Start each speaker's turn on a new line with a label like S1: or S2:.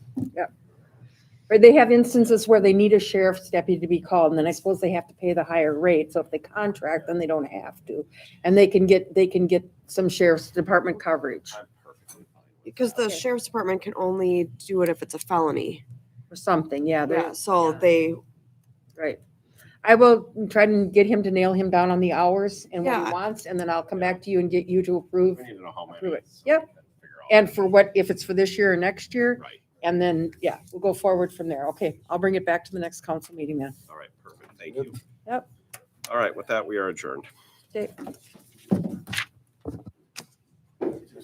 S1: Or they have instances where they need a sheriff's deputy to be called, and then I suppose they have to pay the higher rate, so if they contract, then they don't have to. And they can get, they can get some sheriff's department coverage
S2: I'm perfectly fine with
S3: Because the
S1: Okay.
S3: sheriff's department can only do it if it's a felony.
S1: or something, yeah, they
S3: Yeah, so they,
S1: right. I will try and get him to nail him down on the hours and what he
S3: Yeah.
S1: wants, and then I'll come back to you and get you to approve.
S2: We need to know how many.
S1: Approve it.
S2: so we
S1: Yep.
S2: can figure out-
S1: And for what, if it's for this year or next year,
S2: Right,
S1: and then, yeah, we'll go forward from there. Okay, I'll bring it back to the next council meeting then.
S2: all right, perfect, thank you.
S1: Yep.
S2: All right, with that, we are adjourned.
S1: Okay.